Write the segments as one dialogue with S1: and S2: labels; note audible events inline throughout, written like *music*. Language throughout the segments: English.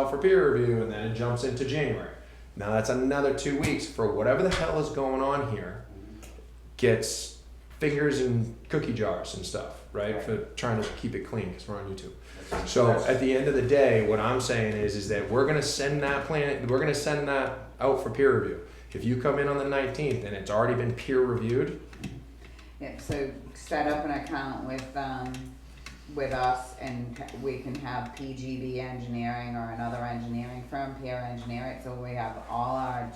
S1: for peer review, and then it jumps into January. Now that's another two weeks for whatever the hell is going on here. Gets fingers in cookie jars and stuff, right? For trying to keep it clean because we're on YouTube. So at the end of the day, what I'm saying is, is that we're gonna send that plan, we're gonna send that out for peer review. If you come in on the nineteenth and it's already been peer reviewed,
S2: Yeah, so set up an account with, um, with us and we can have PGB engineering or another engineering firm, peer engineer it, so we have all our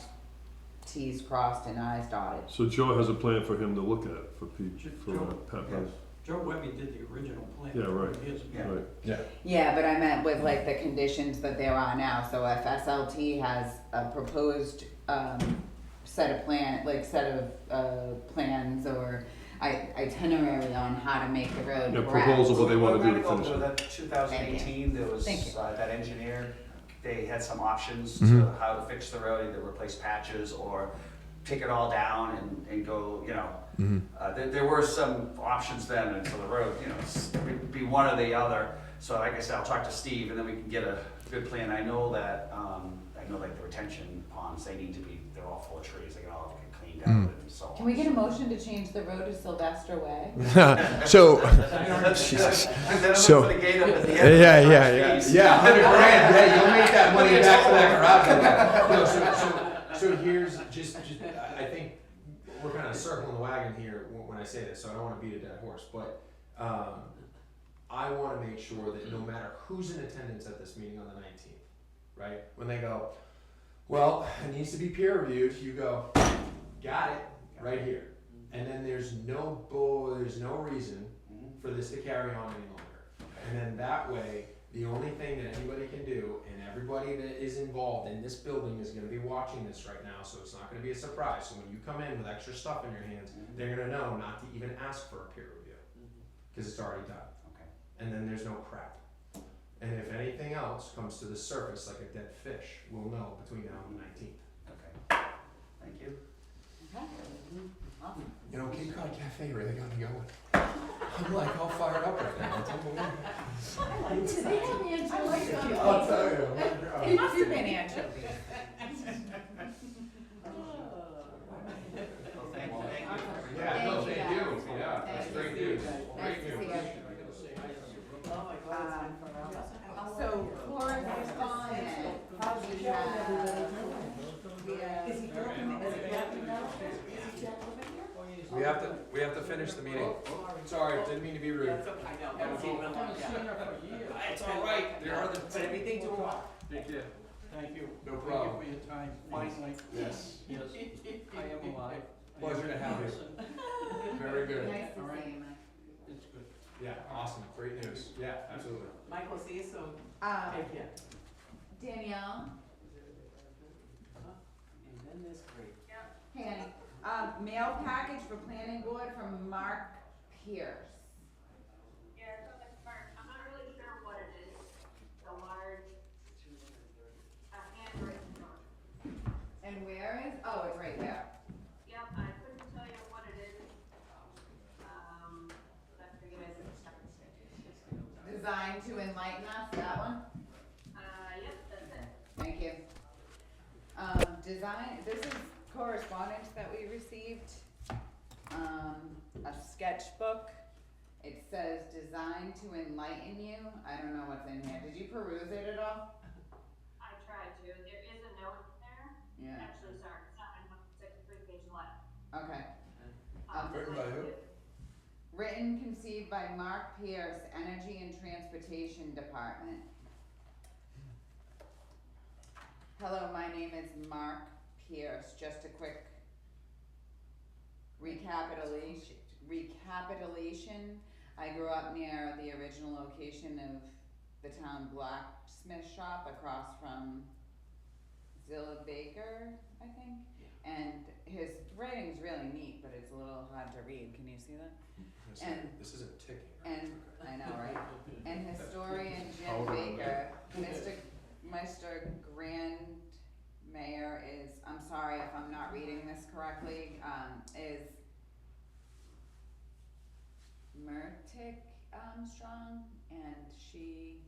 S2: Ts crossed and Is dotted.
S3: So Joe has a plan for him to look at for P, for uh, Pat Brown.
S4: Joe Webby did the original plan.
S3: Yeah, right.
S4: Years ago.
S3: Right,
S2: Yeah, but I meant with like the conditions that there are now, so if SLT has a proposed, um, set of plan, like set of, uh, plans or i- itinerary on how to make the road
S3: Yeah,
S2: correct.
S3: proposal, what they wanna do to
S5: Well,
S3: finish it.
S5: That two thousand eighteen, there was,
S2: Thank you.
S5: uh, that engineer, they had some options to
S1: Mhm.
S5: how to fix the road, either replace patches or take it all down and, and go, you know.
S1: Mm-hmm.
S5: Uh, there, there were some options then until the road, you know, s- it'd be one or the other. So like I said, I'll talk to Steve and then we can get a good plan. I know that, um, I know like the retention ponds, they need to be, they're all full of trees, they can all get cleaned out
S1: Mm.
S5: and so on.
S2: Can we get a
S5: *laughs*
S2: motion to change the road to Sylvester Way?
S1: *laughs* so
S5: *laughs* Jesus.
S1: So-
S5: put a gate up at the
S1: yeah,
S5: end.
S1: yeah, yeah,
S5: Trees.
S1: yeah, hundred grand. Yeah, you'll make that money back for that garage. No, so, so, so here's just, just I I think we're kind of circling the wagon here wh- when I say this, so I don't want to beat a dead horse, but um, I want to make sure that no matter who's in attendance at this meeting on the nineteenth, right? When they go, well, it needs to be peer reviewed. You go, got it, right here. And then there's no bull, there's no reason for this to carry on any longer. And then that way, the only thing that anybody can do, and everybody that is involved in this building is gonna be watching this right now, so it's not gonna be a surprise. So when you come in with extra stuff in your hands, they're gonna know not to even ask for a peer review, cause it's already done.
S5: Okay.
S1: And then there's no crap. And if anything else comes to the surface like a dead fish, we'll know between now and the nineteenth.
S5: Okay. Thank you.
S2: Awesome.
S1: You know, Cape Cod Cafe really got me going. I'm like all fired up right now. It's unbelievable. *laughs* I'll tell you. oh
S2: It must have been anchovies.
S5: Well, thank you.
S1: Yeah, no, they
S2: Thank you,
S1: do. Yeah, that's great news.
S2: Nice
S1: Great
S2: to see
S1: news.
S2: you.
S4: Oh,
S2: Um, So Laura's
S4: Oh,
S2: responded, we have, we have.
S1: We have to, we have to finish the meeting. Sorry, didn't mean to be rude.
S4: It's all right, there are the. Everything to watch.
S1: Thank you.
S4: Thank you.
S1: No problem.
S4: Thank you for your time, finally.
S1: Yes.
S4: Yes, *laughs* I am alive.
S1: Pleasure to have you. Very good.
S2: Nice to see you, Mike.
S4: It's good.
S1: Yeah, awesome. Great news. Yeah, absolutely.
S6: Michael, see you soon.
S2: Um,
S6: Take care.
S2: Danielle,
S6: And then this great.
S2: hey, honey. um, mail package for planning board from Mark Pierce.
S7: Yeah, it's on the cart. I'm not really sure what it is. The large, uh, handwritten note.
S2: And where is, oh, it's right there.
S7: Yep, I couldn't tell you what it is. Um, but I figured I should start with it.
S2: Designed to enlighten us, that one?
S7: Uh, yep, that's it.
S2: Thank you. Um, design, this is correspondence that we received, um, a sketchbook. It says designed to enlighten you, I don't know what's in here, did you peruse it at all?
S7: I tried to. There is a note in there.
S2: Yeah,
S7: Actually, sorry, it's not in one, it's like a three-page letter.
S2: okay.
S7: Um,
S1: Written by who?
S2: Written, conceived by Mark Pierce, Energy and Transportation Department. Hello, my name is Mark Pierce, just a quick recapitulation, recapitulation. I grew up near the original location of the town blacksmith shop across from Zilla Baker, I think. And his writing's really neat, but it's a little hard to read, can you see that?
S1: This
S2: And-
S1: isn't- This isn't ticking. right?
S2: And, I know, right? And historian Jim Baker, Mr. Mr. Grand Mayor is, I'm sorry if I'm not reading this correctly, um, is Murtick, um, Strong, and she